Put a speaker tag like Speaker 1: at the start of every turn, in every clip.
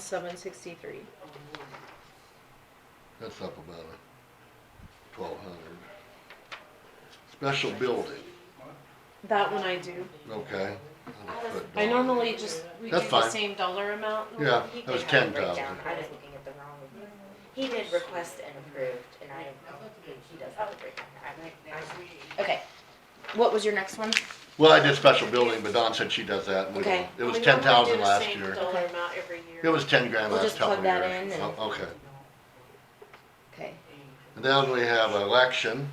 Speaker 1: Seven sixty-three.
Speaker 2: That's up about a twelve hundred. Special building,
Speaker 1: That one I do.
Speaker 2: okay. I'll just put
Speaker 1: I
Speaker 2: dollar.
Speaker 1: normally just, we do
Speaker 2: That's
Speaker 1: the
Speaker 2: fine.
Speaker 1: same dollar amount.
Speaker 2: Yeah,
Speaker 3: He
Speaker 2: that was
Speaker 3: did have
Speaker 2: ten
Speaker 3: a breakdown.
Speaker 2: thousand.
Speaker 3: I was looking at the wrong. He did request and approved, and I, he does have a breakdown. I might, I, okay. What was your next one?
Speaker 2: Well, I did special building, but Dawn said she does that. and we
Speaker 3: Okay.
Speaker 2: don't- It was ten thousand last
Speaker 1: We normally do the same
Speaker 2: year.
Speaker 1: dollar amount every
Speaker 2: It
Speaker 1: year.
Speaker 2: was ten grand
Speaker 3: We'll
Speaker 2: last
Speaker 3: just plug
Speaker 2: couple
Speaker 3: that
Speaker 2: years.
Speaker 3: in and-
Speaker 2: Oh, Okay.
Speaker 3: Okay.
Speaker 2: And then we have election,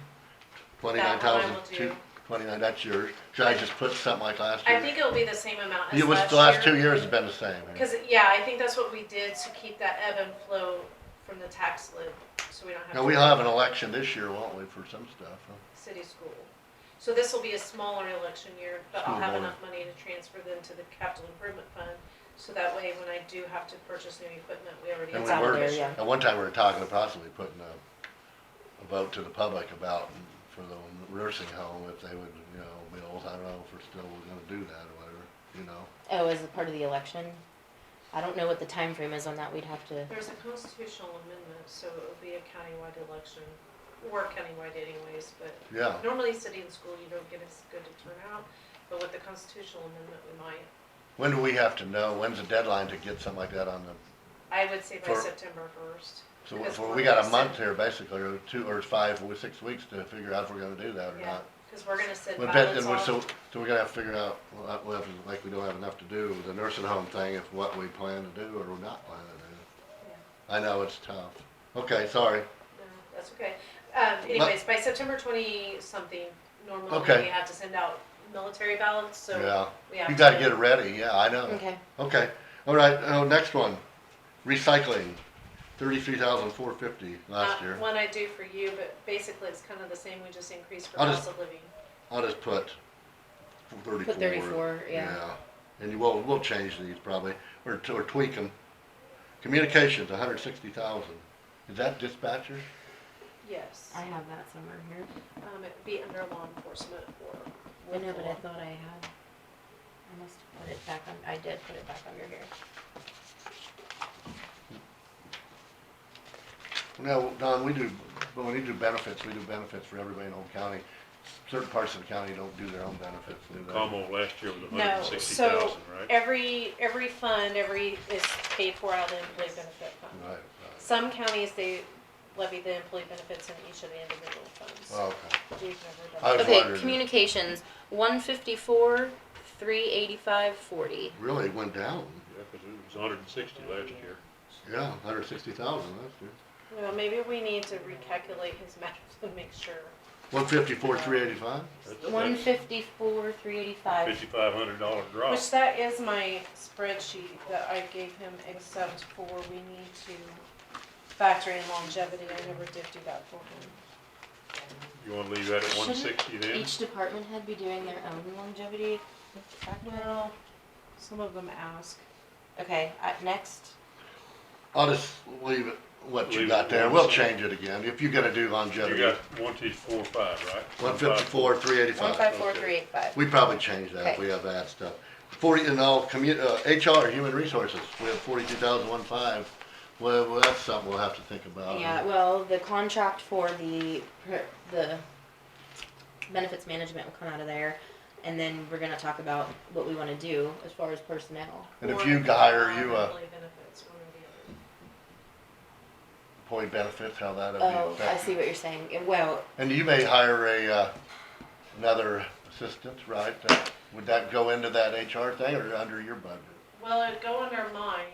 Speaker 2: twenty-nine thousand,
Speaker 1: That one I will
Speaker 2: two,
Speaker 1: do.
Speaker 2: twenty-nine, that's yours. Should I just put something like last year?
Speaker 1: I think it'll be the same amount as last
Speaker 2: It
Speaker 1: year.
Speaker 2: was, the last two years has been the same.
Speaker 1: Cause, yeah, I think that's what we did to keep that ebb and flow from the tax lid, so we don't have.
Speaker 2: Now,
Speaker 1: to
Speaker 2: we'll
Speaker 1: worry
Speaker 2: have an election this year, won't we, for some stuff? huh?
Speaker 1: about City school. So this will be a smaller election year, but I'll
Speaker 2: School
Speaker 1: have
Speaker 2: board.
Speaker 1: enough money to transfer them to the capital improvement fund, so that way when I do have to purchase new equipment, we already.
Speaker 2: And
Speaker 3: It's
Speaker 2: we
Speaker 1: have-
Speaker 3: out
Speaker 2: were,
Speaker 3: there, yeah.
Speaker 2: at one time, we were talking about possibly putting a, a vote to the public about, for the nursing home, if they would, you know, bills, I don't know if we're still gonna do that or whatever, you know?
Speaker 3: Oh, as a part of the election? I don't know what the time frame is on that. We'd have to,
Speaker 1: There's a constitutional amendment, so it would be a countywide election, or countywide anyways, but
Speaker 2: Yeah,
Speaker 1: normally city and school, you don't get as good a turnout, but with the constitutional amendment, we might.
Speaker 2: when do we have to know, when's the deadline to get something like that on the,
Speaker 1: I would say by
Speaker 2: For-
Speaker 1: September first.
Speaker 2: so
Speaker 1: Because
Speaker 2: we-
Speaker 1: we're
Speaker 2: we got a
Speaker 1: gonna
Speaker 2: month
Speaker 1: sit-
Speaker 2: here, basically, or two, or five, or six weeks to figure out if we're gonna do that or
Speaker 1: Yeah,
Speaker 2: not.
Speaker 1: cause we're gonna send
Speaker 2: But that,
Speaker 1: ballots
Speaker 2: and we're, so,
Speaker 1: off.
Speaker 2: so we're gonna have to figure out, well, that- well, if- like, we don't have enough to do, the nursing home thing, if what we plan to do or not plan to do.
Speaker 1: Yeah.
Speaker 2: I know, it's tough. Okay, sorry.
Speaker 1: No, That's okay. Um, anyways, by September twenty-something, normally
Speaker 2: Okay.
Speaker 1: we have to send out military ballots, so
Speaker 2: Yeah,
Speaker 1: we have to.
Speaker 2: you gotta get it ready, yeah, I know.
Speaker 3: okay.
Speaker 2: Okay, all right, oh, next one, recycling, thirty-three thousand four fifty last
Speaker 1: Uh,
Speaker 2: year.
Speaker 1: One I do for you, but basically it's kind of the same, we just increased for
Speaker 2: I'll just-
Speaker 1: cost of living.
Speaker 2: I'll just put thirty-four.
Speaker 3: Put 34, yeah.
Speaker 2: And you will, we'll change these probably, or, t- or tweak them. Communications, a hundred sixty thousand, is that dispatcher?
Speaker 1: Yes,
Speaker 3: I have that somewhere here.
Speaker 1: um, it'd be under law enforcement or.
Speaker 3: I know, but I thought I had. I must have put it back on, I did put it back under here.
Speaker 2: No, Don, we do, but when we do benefits, we do benefits for everybody in Old County. Certain parts of the county don't do their own benefits, do they?
Speaker 4: Como last year was a hundred
Speaker 1: No,
Speaker 4: and sixty
Speaker 1: so
Speaker 4: thousand, right?
Speaker 1: every, every fund, every, is paid for out of the employee benefit
Speaker 2: Right,
Speaker 1: fund.
Speaker 2: right,
Speaker 1: Some counties, they levy the employee benefits in each of the individual funds.
Speaker 2: Well, okay.
Speaker 1: We've never
Speaker 2: I
Speaker 1: done
Speaker 2: was
Speaker 3: Okay,
Speaker 2: wondering.
Speaker 3: communications, one fifty-four, three eighty-five, forty.
Speaker 2: Really went down.
Speaker 4: Yeah, 'cause it was hundred and sixty last year.
Speaker 2: Yeah, hundred sixty thousand last year.
Speaker 1: that. Well, maybe we need to recalculate his math to make sure.
Speaker 2: One fifty-four, three eighty-five?
Speaker 4: That's-
Speaker 3: One
Speaker 4: that's
Speaker 3: fifty-four, three eighty-five.
Speaker 4: Fifty-five hundred dollar
Speaker 2: Oh.
Speaker 4: drop.
Speaker 1: Which that is my spreadsheet that I gave him, except for we need to factor in longevity. I never did do that for him.
Speaker 4: You wanna leave that at one sixty then?
Speaker 3: Each department head be doing their own longevity factor?
Speaker 1: Well, some of them ask.
Speaker 3: Okay, uh, next.
Speaker 2: I'll just leave it, what you
Speaker 4: Leave
Speaker 2: got
Speaker 4: it
Speaker 2: there.
Speaker 4: one
Speaker 2: We'll
Speaker 4: sixty.
Speaker 2: change it again. If you're gonna do
Speaker 4: You
Speaker 2: longevity,
Speaker 4: got one, two, four, five, right?
Speaker 2: one fifty-four, three
Speaker 3: One
Speaker 2: eighty-five.
Speaker 3: five four three eight five.
Speaker 2: We probably change that if
Speaker 3: Okay.
Speaker 2: we have that stuff. Forty, and all commu, uh, HR, human resources, we have forty-two thousand one five. Well, well, that's something we'll have to think about.
Speaker 3: Yeah, well, the contract for the, per- the benefits management will come out of there. And then we're gonna talk about what we wanna do as far as personnel.
Speaker 2: And if
Speaker 1: Or
Speaker 2: you hire, you, uh,
Speaker 1: Employee benefits, one or the other.
Speaker 2: employee benefits, how that'll be
Speaker 3: Oh,
Speaker 2: affected.
Speaker 3: I see what you're saying. And Well,
Speaker 2: And you may hire a, uh, another assistant, right? Uh, Would that go into that HR thing or under your budget?
Speaker 1: Well, it'd go under mine.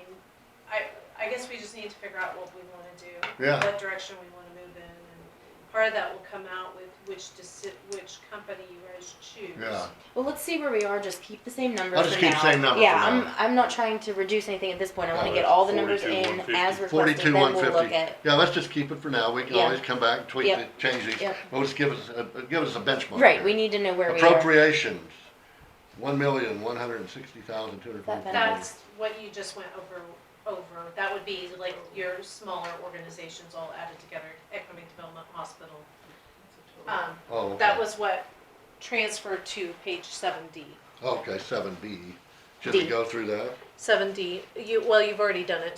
Speaker 1: I, I guess we just need to figure out what we wanna do.
Speaker 2: Yeah.
Speaker 1: What direction we wanna move in, and part of that will come out with which deci- which company you guys choose.
Speaker 2: Yeah,
Speaker 3: Well, let's see where we are. Just keep the same number
Speaker 2: I'll
Speaker 3: for
Speaker 2: just keep
Speaker 3: now.
Speaker 2: same number
Speaker 3: Yeah,
Speaker 2: for
Speaker 3: I'm
Speaker 2: now.
Speaker 3: I'm not trying to reduce anything at this point. I want to
Speaker 2: No,
Speaker 3: get
Speaker 4: that's
Speaker 3: all the numbers in
Speaker 4: 42,150.
Speaker 3: as requested.
Speaker 2: forty-two,
Speaker 3: Then
Speaker 2: one
Speaker 3: we'll look
Speaker 2: fifty.
Speaker 3: at.
Speaker 2: Yeah, let's just keep it for now. We can
Speaker 3: Yeah.
Speaker 2: always come back, tweak
Speaker 3: Yep.
Speaker 2: it, change these.
Speaker 3: Yep.
Speaker 2: Well, just give us, a- give us a benchmark.
Speaker 3: Right,
Speaker 2: here.
Speaker 3: we need to know where we are.
Speaker 2: Appropriations, one million, one hundred and sixty thousand, two hundred and forty.
Speaker 3: That
Speaker 1: That's what you just went over, over. That would be like your smaller organizations all added together, Economic Development Hospital. Um,
Speaker 2: Oh,
Speaker 1: that
Speaker 2: okay.
Speaker 1: was what transferred to page seven D.
Speaker 2: Okay, seven B. Should we
Speaker 3: D.
Speaker 2: go through that?
Speaker 1: Seven D, you, well, you've already done it,